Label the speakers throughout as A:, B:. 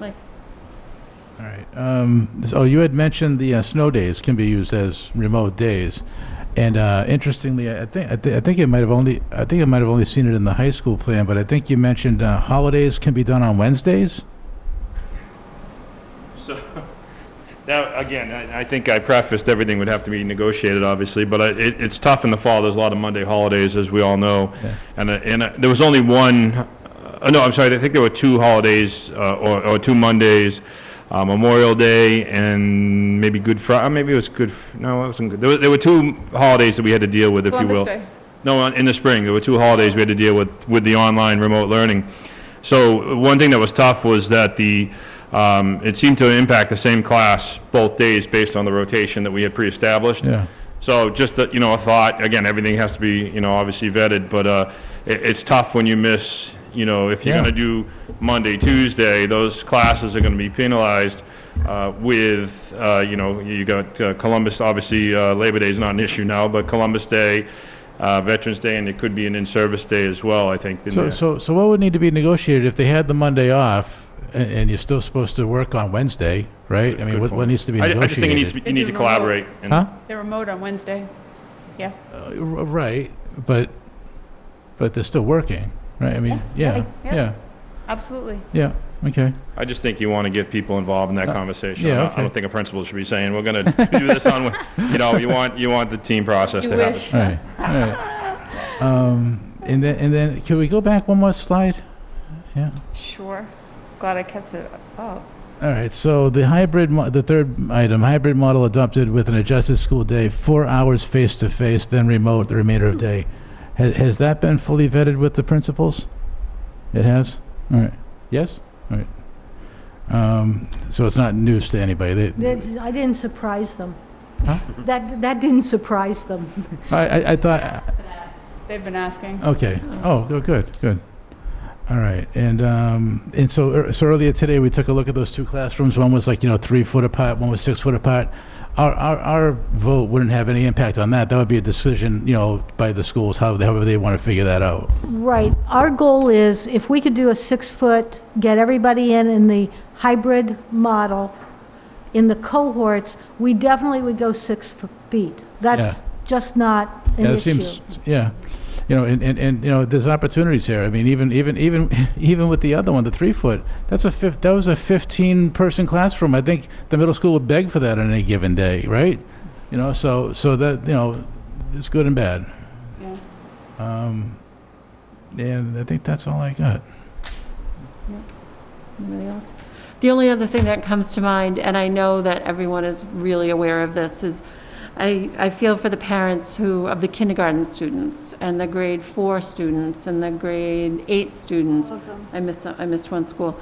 A: Like,
B: All right. Um, so you had mentioned the uh, snow days can be used as remote days, and uh, interestingly, I think I, th- I think it might have only I think I might have only seen it in the high school plan, but I think you mentioned uh, holidays can be done on Wednesdays.
C: So, now, again, I, I think I prefaced everything would have to be negotiated, obviously, but I- it, it's tough in the fall. There's a lot of Monday holidays, as we all know.
B: Yeah.
C: And, uh, and uh, there was only one, uh, no, I'm sorry, I think there were two holidays, uh, or, or two Mondays, uh, Memorial Day and maybe Good Friday, maybe it was Good, F- no, it wasn't good. There were, there were two holidays that we had to deal with, if you
A: Columbus
C: will.
A: Day.
C: No, on- in the spring, there were two holidays we had to deal with, with the online remote learning. So one thing that was tough was that the, um, it seemed to impact the same class both days based on the rotation that we had pre-established.
B: Yeah.
C: So just, a- you know, a thought, again, everything has to be, you know, obviously vetted, but uh, it- it's tough when you miss, you know, if you're
B: Yeah.
C: going to do Monday, Tuesday, those classes are going to be penalized uh, with, uh, you know, you got uh, Columbus, obviously, uh, Labor Day is not an issue now, but Columbus Day, uh, Veterans Day, and it could be an in-service day as well, I think. in
B: So
C: there.
B: so so what would need to be negotiated if they had the Monday off and, and you're still supposed to work on Wednesday, right? I mean,
C: Good
B: what,
C: point.
B: what needs to be
C: I ju-
B: negotiated?
C: I just think you need to, be-
A: They
C: you need
A: do
C: to
A: remote.
C: collaborate. and-
B: Huh?
A: They're remote on Wednesday. Yeah.
B: Uh, r- right, but but they're still working, right? I mean,
A: Yeah,
B: yeah,
A: yeah.
B: yeah, yeah.
A: Absolutely.
B: Okay.
C: I just think you want to get people involved in that
B: Uh,
C: conversation.
B: yeah,
C: I don't- I
B: okay.
C: don't think a principal should be saying, we're going to do this on, you know, you want, you want the team process
A: You
C: to happen.
A: wish.
B: All right, all right. Um, and then, and then, can we go back one more slide? Yeah.
A: Sure. Glad I kept it up.
B: All right. So the hybrid, mo- the third item, hybrid model adopted with an adjusted school day, four hours face to face, then remote the remainder of day. Has, has that been fully vetted with the principals? It has. All right. Yes. All right. Um, so it's not news to anybody. They,
D: That- I didn't surprise them.
B: Huh?
D: That, that didn't surprise them.
B: I, I, I thought.
A: They've been asking.
B: Okay. Oh, go- good, good. All right. And um, and so ear- so earlier today we took a look at those two classrooms. One was like you know three foot apart. One was six foot apart. Our, our, our vote wouldn't have any impact on that. That would be a decision, you know, by the schools, how, however they want to figure that out.
D: Right. Our goal is, if we could do a six-foot, get everybody in in the hybrid model, in the cohorts, we definitely would go six f- feet. That's just not an
B: yeah, it
D: issue.
B: seems, yeah. You know, and, and, and, you know, there's opportunities here. I mean, even, even, even, even with the other one, the three foot, that's a fif, that was a 15 person classroom. I think the middle school would beg for that on any given day, right? You know, so, so that, you know, it's good and bad.
A: Yeah.
B: Um, and I think that's all I got.
E: Anybody else? The only other thing that comes to mind, and I know that everyone is really aware of this, is I, I feel for the parents who, of the kindergarten students and the grade four students and the grade eight students. I missed, I missed one school,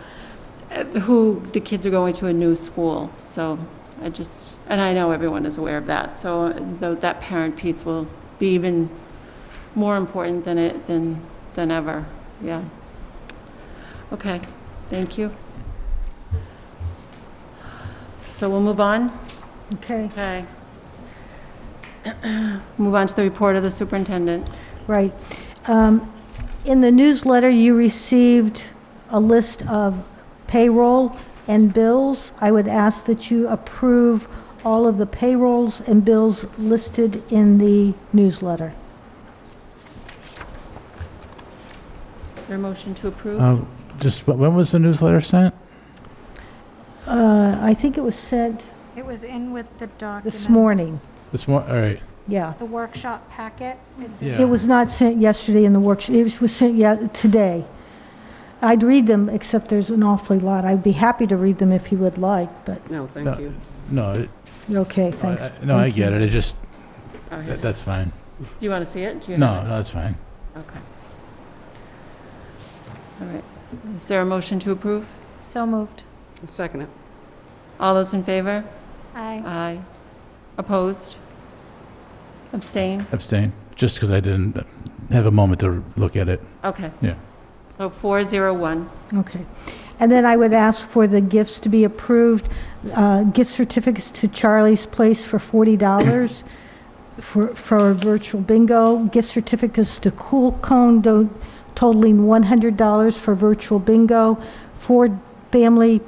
E: uh, who, the kids are going to a new school. So I just, and I know everyone is aware of that. So uh, tho- that parent piece will be even more important than it, than, than ever. Yeah. Okay. Thank you. So we'll move on.
D: Okay,
E: Okay. Move on to the report of the superintendent.
D: right. Um, In the newsletter, you received a list of payroll and bills. I would ask that you approve all of the payrolls and bills listed in the newsletter.
E: Is there a motion to approve?
B: Uh, just wh- when was the newsletter sent?
D: Uh, I think it was sent,
F: It was in with the documents.
D: morning.
B: This one. All right.
D: yeah.
F: The workshop packet. It's in-
B: Yeah.
D: It was not sent yesterday in the workshop, it was sent ye- today. I'd read them, except there's an awfully lot. I'd be happy to read them if you would like, but,
E: No,
B: No.
E: thank you.
B: No. It,
D: okay,
B: Oh, I,
D: thanks.
B: I, no, I
D: Thank
B: get
D: you.
B: it. It just
E: All right.
B: that, that's fine.
E: Do you want to see it? Do you
B: No,
E: have
B: no, that's fine.
E: it? Okay. All right. Is there a motion to approve?
F: So moved.
E: Second it. All those in favor?
F: Aye.
E: Aye. Opposed? Abstain?
B: Abstain. Just because I didn't have a moment to look at it.
E: Okay.
B: Yeah.
E: So 401.
D: Okay. And then I would ask for the gifts to be approved, uh, gift certificates to Charlie's Place for $40 for, for a virtual bingo, gift certificates to Cool Cone do- totaling $100 for virtual bingo, four family